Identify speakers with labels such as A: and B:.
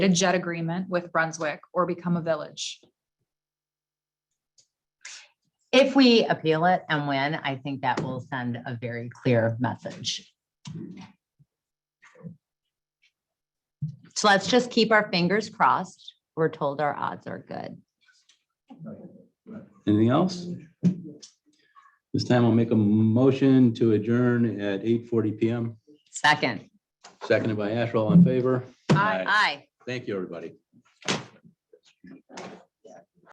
A: a jet agreement with Brunswick or become a village.
B: If we appeal it and win, I think that will send a very clear message. So let's just keep our fingers crossed. We're told our odds are good.
C: Anything else? This time I'll make a motion to adjourn at eight forty PM,
B: Second.
C: seconded by Asher, all in favor.
B: Aye.
C: Thank you, everybody.